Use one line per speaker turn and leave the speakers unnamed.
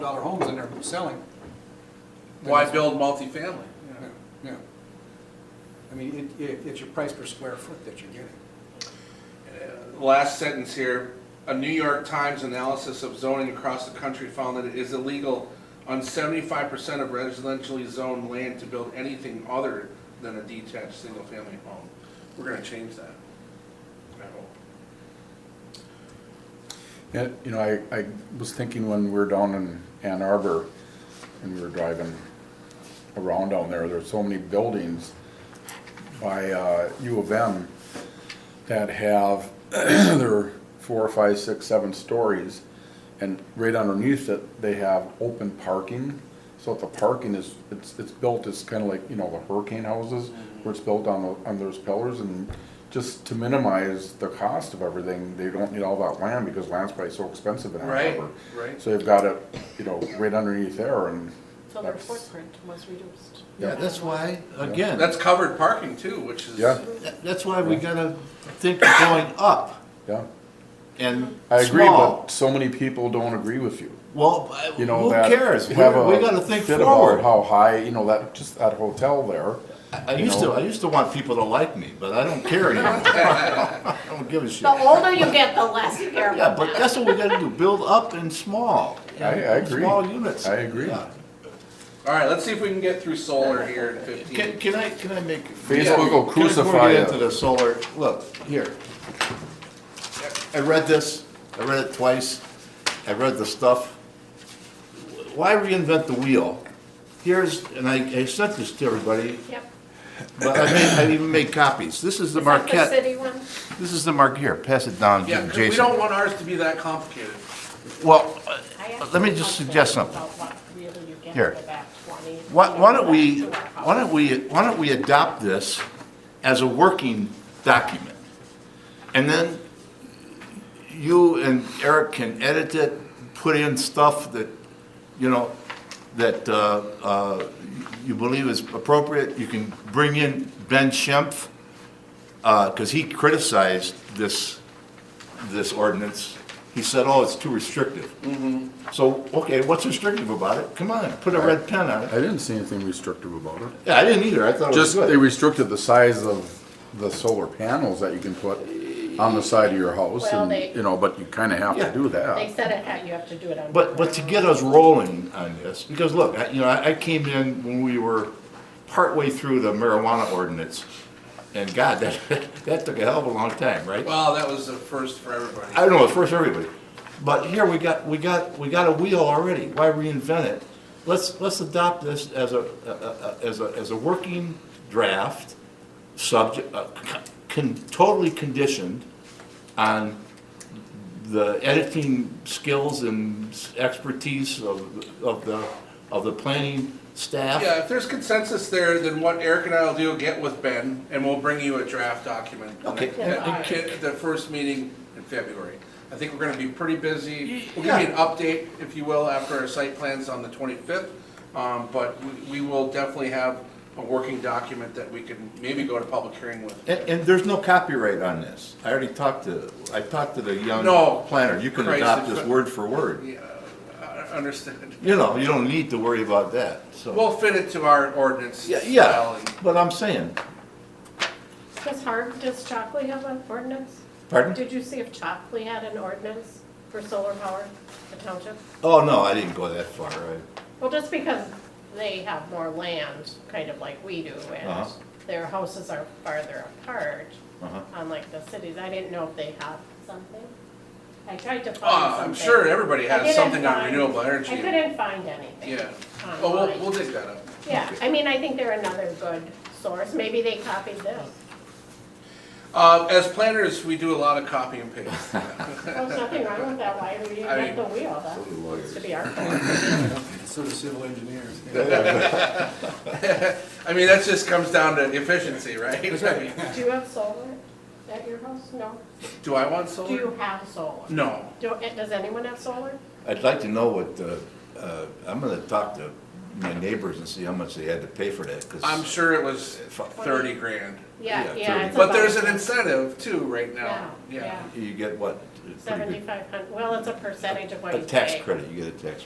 dollar homes in there selling.
Why build multifamily?
No, no. I mean, it, it, it's your price per square foot that you're getting.
Last sentence here, a New York Times analysis of zoning across the country found that it is illegal on seventy-five percent of residentially zoned land to build anything other than a detached, single-family home. We're gonna change that. I hope.
Yeah, you know, I, I was thinking when we were down in Ann Arbor and we were driving around down there, there's so many buildings by, uh, U of M that have, their four, five, six, seven stories. And right underneath it, they have open parking. So if the parking is, it's, it's built, it's kind of like, you know, the hurricane houses
Mm-hmm.
where it's built on the, on those pillars and just to minimize the cost of everything, they don't need all that land because land's probably so expensive in Ann
Right,
Arbor.
right.
So they've got it, you know, right underneath there and
So their
that's-
footprint was reduced.
Yeah, that's why, again,
That's covered parking too, which is.
Yeah.
that- that's why we gotta think of going up
Yeah,
and
I agree,
small.
but so many people don't agree with you.
Well,
You know
who
that
cares? We we
have a
gotta think
fit about
forward.
How high, you know, that, just that hotel there.
I I used to, I used to want people to like me, but I don't care anymore. I don't give a shit.
The older you get, the less you care
Yeah,
about
but that's what we gotta do, build up and small.
I, I agree.
Small units.
I agree.
Yeah.
All right, let's see if we can get through solar here in
Can,
fifteen.
can I, can I make?
Facebook will
Yeah, can- before we
crucify
get
you.
Into the solar, look, here. I read this, I read it twice, I read the stuff. Why reinvent the wheel? Here's, and I, I sent this to everybody,
Yep.
but I made, I even made copies. This is the
Is that the
Marquette,
city one?
this is the Marquette, here, pass it down
Yeah,
to
'cause we don't
Jason.
want ours to be that complicated.
Well, uh,
I asked
let me
them
just
about
suggest
that,
something.
about what really you get
Here.
for that 20,
Why, why don't we,
you know, back to our
why don't we, why don't we adopt this as a working document? And then you and Eric can edit it, put in stuff that, you know, that, uh, uh, you believe is appropriate. You can bring in Ben Schimpf, uh 'cause cause he criticized this, this ordinance. He said, oh, it's too restrictive. So, okay, what's restrictive about it? Come on, put a red pen on it.
I didn't see anything restrictive about it.
Yeah, I didn't either. I thought
Just,
it was
they
good.
restricted the size of the solar panels that you can put on the side of your house
Well,
and,
they-
you know, but you kinda have to
Yeah.
do
They
that.
said it had, you have to do it on.
but but to get us rolling on this, because look, I, you know, I, I came in when we were partway through the marijuana ordinance, and God, that that took a hell of a long time, right?
Well, that was the first for everybody.
I don't know, first everybody, but here we got we got we got a wheel already. Why reinvent it? Let's let's adopt this as a, a, a as a as a working draft, subject uh, con- con, totally conditioned on the editing skills and expertise of, of the, of the planning staff.
Yeah, if there's consensus there, then what Eric and I will do, get with Ben, and we'll bring you a draft document.
Okay.
At the- at the first meeting in February. I think we're gonna be pretty busy. We'll give you an update, if you will, after our site plans on the twenty-fifth. Um, but we, we will definitely have a working document that we can maybe go to public hearing with.
And, and there's no copyright on this. I already talked to, I talked to the young
No.
planner. You can
Christ,
adopt
it's-
this word for word.
Yeah, I understand.
You know, you don't need to worry about that, so.
We'll fit it to our ordinance
Yeah,
style
yeah,
and uh,
but I'm saying,
Does Harm, does Chalkley have an ordinance?
pardon?
Did you see if Chalkley had an ordinance for solar power, the township?
Oh, no, I didn't go that far. I-
Well, just because they have more land, kind of like we do, and
Uh-huh.
their houses are farther apart,
uh-huh.
unlike the cities, I didn't know if they had something. I tried to find
Uh,
something.
I'm sure everybody
I
has
didn't
something on
find-
renewable energy.
I couldn't find anything.
Yeah. Oh, we'll,
online.
we'll dig that up.
Yeah, I mean, I think they're another good source, maybe they copied this.
Uh, as planners, we do a lot of copy and paste.
There's nothing wrong with that, why would you
I
get the wheel,
So do
that
lawyers.
used to be our fault.
So do civil engineers.
I mean, that just comes down to efficiency, right? I mean,
Do you have solar at your house? No.
Do I want
Do you
solar?
have solar?
No.
Do- Does anyone have solar?
I'd like to know what, uh, uh, I'm gonna talk to my neighbors and see how much they had to pay for that, because.
I'm sure it was thirty grand.
Yeah,
Yeah,
yeah. it's
But there's
about-
an incentive too right now.
Yeah,
Yeah.
yeah,
You get what? a pretty good-
seventy-five hundred, well, it's a percentage of what
A
you pay.
tax credit, you get a tax